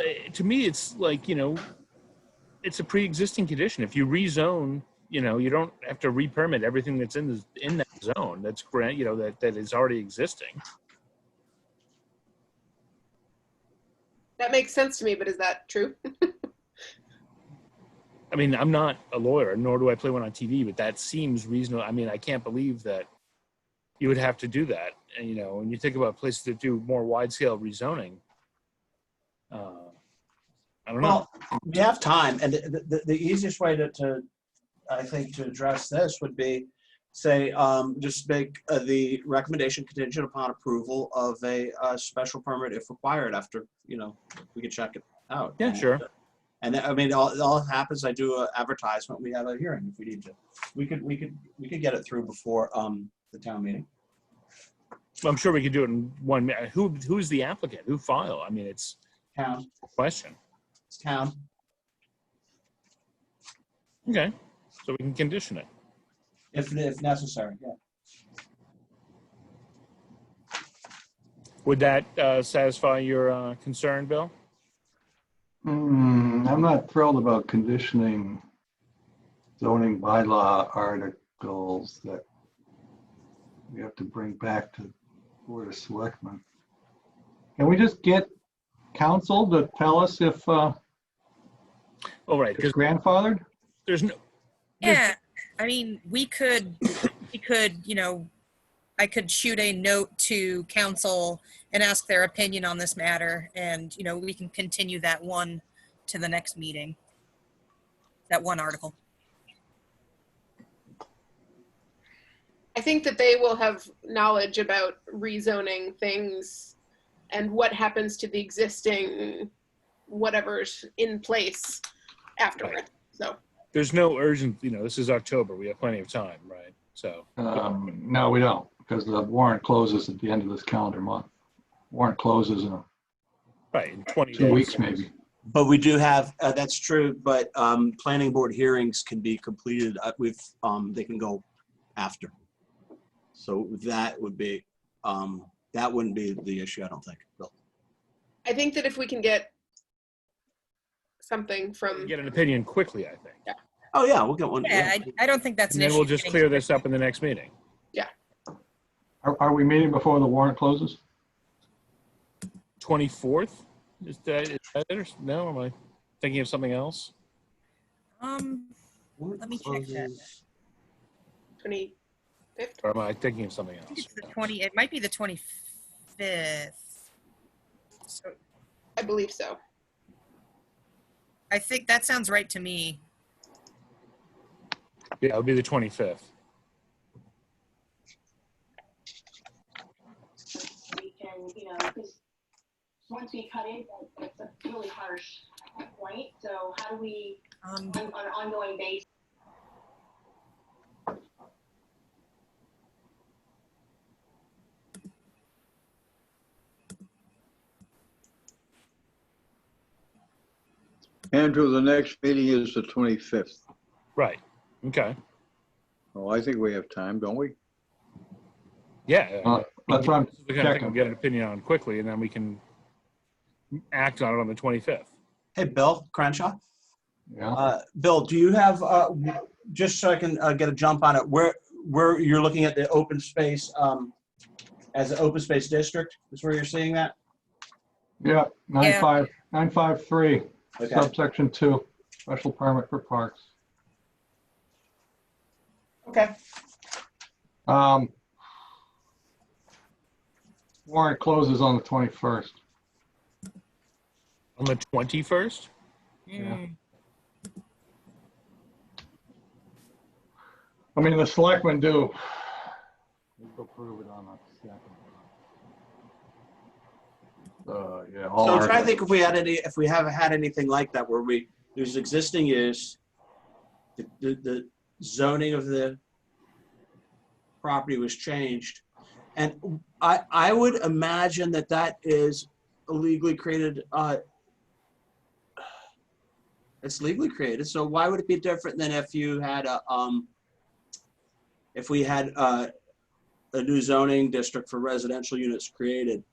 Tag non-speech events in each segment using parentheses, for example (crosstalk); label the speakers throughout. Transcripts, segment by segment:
Speaker 1: uh, to me, it's like, you know, it's a pre-existing condition. If you rezone, you know, you don't have to re-permit everything that's in the, in that zone that's grant, you know, that, that is already existing.
Speaker 2: That makes sense to me, but is that true? (laughs)
Speaker 1: I mean, I'm not a lawyer, nor do I play one on TV, but that seems reasonable. I mean, I can't believe that you would have to do that. And, you know, when you think about places that do more wide-scale rezoning, uh, I don't know.
Speaker 3: Well, we have time, and the, the, the easiest way to, to, I think, to address this would be, say, um, just make uh, the recommendation contingent upon approval of a, uh special permit if required after, you know, we can check it out. uh,
Speaker 1: Yeah, sure.
Speaker 3: And I mean, all, all that happens, I do an advertisement, we have a hearing if we need to. We could, we could, we could get it through before, um, the town meeting.
Speaker 1: I'm sure we could do it in one minute. Who, who's the applicant? Who file? I mean, it's
Speaker 3: Town,
Speaker 1: a question.
Speaker 3: it's town.
Speaker 1: Okay, so we can condition it.
Speaker 3: If, if necessary, yeah.
Speaker 1: Would that uh, satisfy your uh, concern, Bill?
Speaker 4: Hmm, I'm not thrilled about conditioning zoning bylaw articles that we have to bring back to Board of Selectmen. Can we just get counsel to tell us if uh,
Speaker 1: All Oh, right,
Speaker 4: it's
Speaker 1: because
Speaker 4: grandfathered?
Speaker 1: there's no, Yes.
Speaker 5: Yeah, I mean, we could, we could, you know, I could shoot a note to council and ask their opinion on this matter, and, you know, we can continue that one to the next meeting. That one article.
Speaker 2: I think that they will have knowledge about rezoning things and what happens to the existing whatever's in place afterward. So
Speaker 1: there's no urgent, you know, this is October, we have plenty of time, right? So,
Speaker 4: Um, No, we don't, because the warrant closes at the end of this calendar month. Warrant closes in
Speaker 1: right, in 20
Speaker 4: two
Speaker 1: days.
Speaker 4: weeks, maybe.
Speaker 3: But we do have, uh, that's true, but, um, planning board hearings can be completed, uh, with, um, they can go after. So that would be, um, that wouldn't be the issue, I don't think, Bill.
Speaker 2: I think that if we can get something from,
Speaker 1: Get an opinion quickly, I think.
Speaker 3: Oh, yeah, we'll get one.
Speaker 5: Yeah, I, I don't think that's
Speaker 1: And
Speaker 5: an
Speaker 1: then
Speaker 5: issue.
Speaker 1: we'll just
Speaker 5: getting-
Speaker 1: clear this up in the next meeting.
Speaker 4: Are, are we meeting before the warrant closes?
Speaker 1: 24th? Is that, is that it or, no, am I thinking of something else?
Speaker 5: Um, let me check that.
Speaker 2: 20,
Speaker 1: Or am I thinking of something
Speaker 5: I think
Speaker 1: else?
Speaker 5: it's the twenty, it might be the twenty-fifth. So
Speaker 2: I believe so.
Speaker 5: I think that sounds right to me.
Speaker 1: Yeah, it'll be the 25th.
Speaker 6: we can, you know, because once we cut it, it's a really harsh point. So how do we,
Speaker 5: Um,
Speaker 6: on on an ongoing basis,
Speaker 7: Andrew, the next meeting is the 25th.
Speaker 1: Right, okay,
Speaker 7: Well, I think we have time, don't we?
Speaker 1: yeah.
Speaker 4: Uh, That's what I'm
Speaker 1: This is the kind of thing we'll
Speaker 4: checking.
Speaker 1: get an opinion on quickly, and then we can act on it on the 25th.
Speaker 3: Hey, Bill Crenshaw,
Speaker 4: Yeah.
Speaker 3: uh, Bill, do you have, uh, w- just so I can, uh, get a jump on it, where, where you're looking at the open space, um, as an open space district, is where you're seeing that?
Speaker 4: Yeah, nine
Speaker 5: Yeah.
Speaker 4: five, nine five three,
Speaker 3: Okay.
Speaker 4: subsection two, special permit for parks.
Speaker 3: Okay.
Speaker 4: Um, warrant closes on the twenty-first.
Speaker 1: On the 21st?
Speaker 4: Yeah.
Speaker 5: mm,
Speaker 4: I mean, the selectmen do. We approve it on the second. Uh, yeah. all
Speaker 3: So I'm trying
Speaker 4: articles.
Speaker 3: to think if we had any, if we haven't had anything like that where we, there's existing use, the, the, the zoning of the property was changed. And I, I would imagine that that is illegally created, uh, it's legally created, so why would it be different than if you had a, um, if we had, uh, a new zoning district for residential units created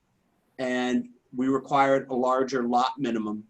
Speaker 3: and we required a larger lot minimum